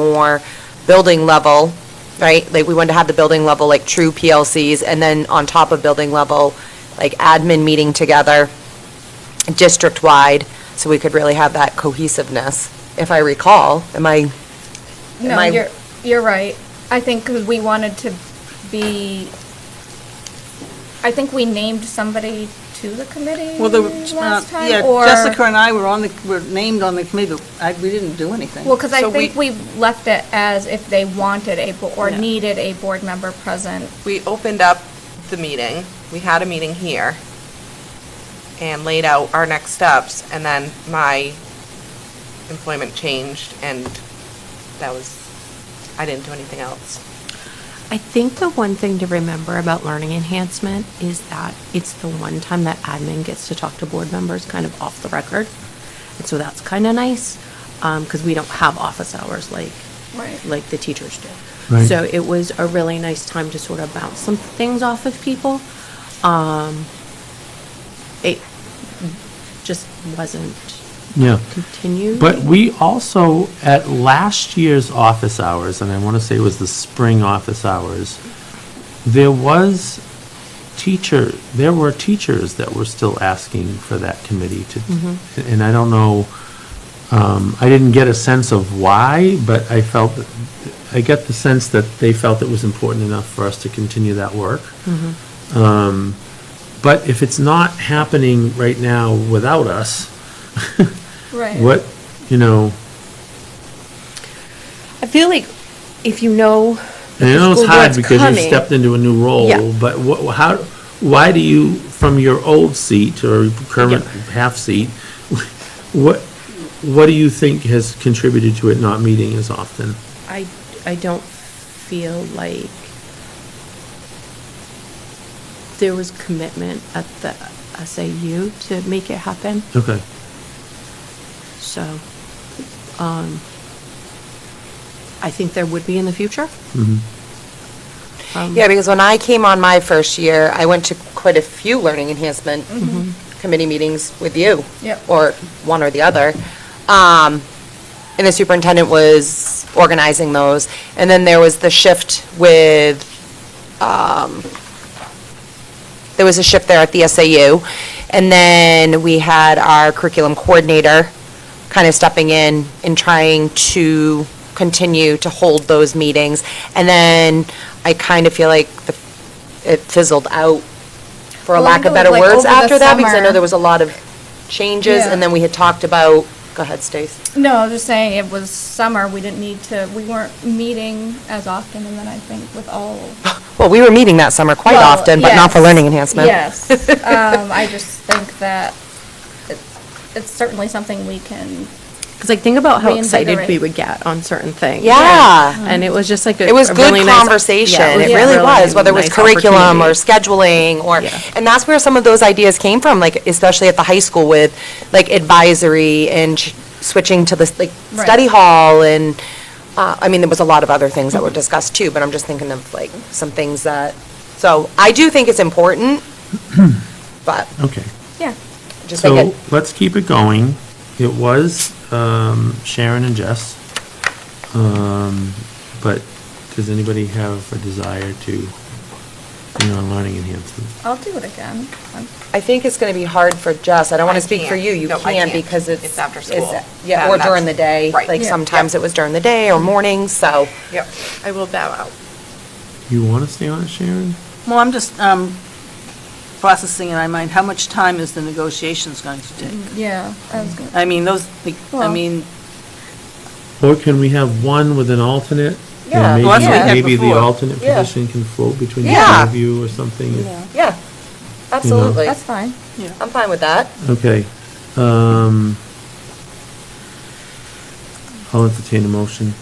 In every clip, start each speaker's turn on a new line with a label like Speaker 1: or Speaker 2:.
Speaker 1: more building level, right? Like, we wanted to have the building level, like, true PLCs, and then on top of building level, like, admin meeting together, district-wide, so we could really have that cohesiveness, if I recall. Am I, Am
Speaker 2: No,
Speaker 1: I-
Speaker 2: you're, you're right. I think 'cause we wanted to be, I think we named somebody to the committee
Speaker 3: Well, the, uh,
Speaker 2: last time,
Speaker 3: yeah,
Speaker 2: or-
Speaker 3: Jessica and I were on the, were named on the committee, but I, we didn't do anything.
Speaker 2: Well, because I
Speaker 4: So we-
Speaker 2: think we left it as if they wanted a, bo- or
Speaker 3: Yeah.
Speaker 2: needed a board member present.
Speaker 4: we opened up the meeting, we had a meeting here, and laid out our next steps, and then my employment changed, and that was, I didn't do anything else.
Speaker 5: I think the one thing to remember about learning enhancement is that it's the one time that admin gets to talk to board members kind of off the record. And so that's kind of nice, because we don't have office hours like,
Speaker 2: Right.
Speaker 5: like the teachers do.
Speaker 6: Right.
Speaker 5: So it was a really nice time to sort of bounce some things off of people. Um, It just wasn't
Speaker 6: Yeah.
Speaker 5: continued.
Speaker 6: But we also, at last year's office hours, and I want to say it was the spring office hours, there was teacher, there were teachers that were still asking for that committee to, and I don't know, um, I didn't get a sense of why, but I felt, that- I get the sense that they felt it was important enough for us to continue that work. Um, But if it's not happening right now without us,
Speaker 2: Right.
Speaker 6: what, you know,
Speaker 5: I feel like if you know.
Speaker 6: And I
Speaker 5: the
Speaker 6: know it's
Speaker 5: school
Speaker 6: hard
Speaker 5: board's
Speaker 6: because you've
Speaker 5: coming-
Speaker 6: stepped into a new
Speaker 5: Yeah.
Speaker 6: role, but what, how, why do you, from your old seat or current half seat, what, what do you think has contributed to it not meeting as often?
Speaker 5: I, I don't feel like there was commitment at the SAU to make it happen,
Speaker 6: Okay,
Speaker 5: so, um, I think there would be in the future. Um,
Speaker 1: yeah, because when I came on my first year, I went to quite a few learning enhancement committee meetings with you.
Speaker 2: Yep.
Speaker 1: Or one or the other. Um, and the superintendent was organizing those. And then there was the shift with, um, there was a shift there at the SAU. And then we had our curriculum coordinator kind of stepping in and trying to continue to hold those meetings. And then I kind of feel like the- it fizzled out, for a
Speaker 2: Well, I
Speaker 1: lack of
Speaker 2: know,
Speaker 1: better
Speaker 2: like,
Speaker 1: words,
Speaker 2: over the
Speaker 1: after that, because I know
Speaker 2: summer-
Speaker 1: there was a lot of changes.
Speaker 2: Yeah.
Speaker 1: And then we had talked about, go ahead, Stace.
Speaker 2: No, I was just saying, it was summer, we didn't need to, we weren't meeting as often, and then I think with all.
Speaker 1: Well, we were meeting that summer quite
Speaker 2: Well,
Speaker 1: often, but not for
Speaker 2: yes,
Speaker 1: learning enhancement.
Speaker 2: Yes, um, I just think that it- it's certainly something we can
Speaker 5: Cause like, think about how excited we
Speaker 2: Reinvigorate.
Speaker 5: would get on certain things.
Speaker 1: Yeah.
Speaker 5: And it was just like a.
Speaker 1: It was
Speaker 5: a
Speaker 1: good
Speaker 5: really nice-
Speaker 1: conversation.
Speaker 5: yeah,
Speaker 1: It
Speaker 2: was a
Speaker 1: really
Speaker 2: really
Speaker 1: was, whether it was
Speaker 5: nice
Speaker 1: curriculum or
Speaker 5: opportunity.
Speaker 1: scheduling or,
Speaker 5: Yeah.
Speaker 1: and that's where some of those ideas came from, like especially at the high school with like advisory and ch- switching to this, like
Speaker 2: Right.
Speaker 1: study hall and, uh, I mean, there was a lot of other things that were discussed too, but I'm just thinking of like some things that, so I do think it's important, but
Speaker 6: okay.
Speaker 2: Yeah,
Speaker 1: just like
Speaker 6: So
Speaker 1: it,
Speaker 6: let's keep it going. It was um, Sharon and Jess. Um, But does anybody have a desire to, you know, learning enhancement?
Speaker 2: I'll do it again. I'm-
Speaker 1: I think it's going to be hard for Jess. I don't want
Speaker 4: I
Speaker 1: to speak for
Speaker 4: can't.
Speaker 1: you. You
Speaker 4: No, I
Speaker 1: can
Speaker 4: can't.
Speaker 1: because it's.
Speaker 4: It's after
Speaker 1: it's-
Speaker 4: school.
Speaker 1: Yeah,
Speaker 4: Then
Speaker 1: or
Speaker 4: that's-
Speaker 1: during the day.
Speaker 4: Right. Mm-hmm.
Speaker 1: Like
Speaker 2: Yeah.
Speaker 1: sometimes it was during the day or mornings, so.
Speaker 4: Yep, I will bow out.
Speaker 6: You want to stay on it, Sharon?
Speaker 3: Well, I'm just, um, processing in my mind, how much time is the negotiations going to take?
Speaker 2: Yeah, I was gonna,
Speaker 3: I mean, those, like, I
Speaker 2: Mm. Well-
Speaker 3: mean,
Speaker 6: Or can we have one with an alternate? And
Speaker 1: Yeah,
Speaker 6: maybe-
Speaker 3: Well, that's what we had
Speaker 6: Maybe the
Speaker 3: before.
Speaker 6: alternate
Speaker 1: Yeah.
Speaker 6: position can float between the
Speaker 1: Yeah.
Speaker 6: two of you or something. if-
Speaker 1: Yeah, absolutely.
Speaker 6: Mm-hmm.
Speaker 2: that's fine.
Speaker 1: I'm fine with that.
Speaker 6: Okay. um, I'll entertain a motion.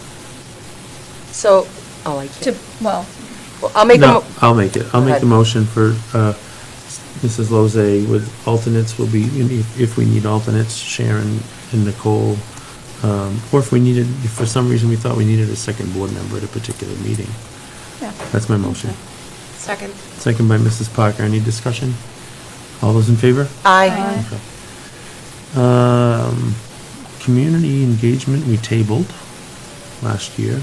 Speaker 1: So, oh, I can't.
Speaker 2: To, well,
Speaker 1: Well, I'll make a,
Speaker 6: No,
Speaker 1: mo-
Speaker 6: I'll make it. I'll
Speaker 1: Go
Speaker 6: make
Speaker 1: ahead.
Speaker 6: the motion for uh, Mrs. Lozay with alternates will be, if- if we need alternates, Sharon and Nicole. um, Or if we needed, if for some reason we thought we needed a second board member at a particular meeting.
Speaker 2: yeah.
Speaker 6: That's my motion.
Speaker 4: Second.
Speaker 6: Second by Mrs. Parker. Any discussion? All those in favor?
Speaker 1: I,
Speaker 6: Okay. Um, Community engagement, we tabled. last year.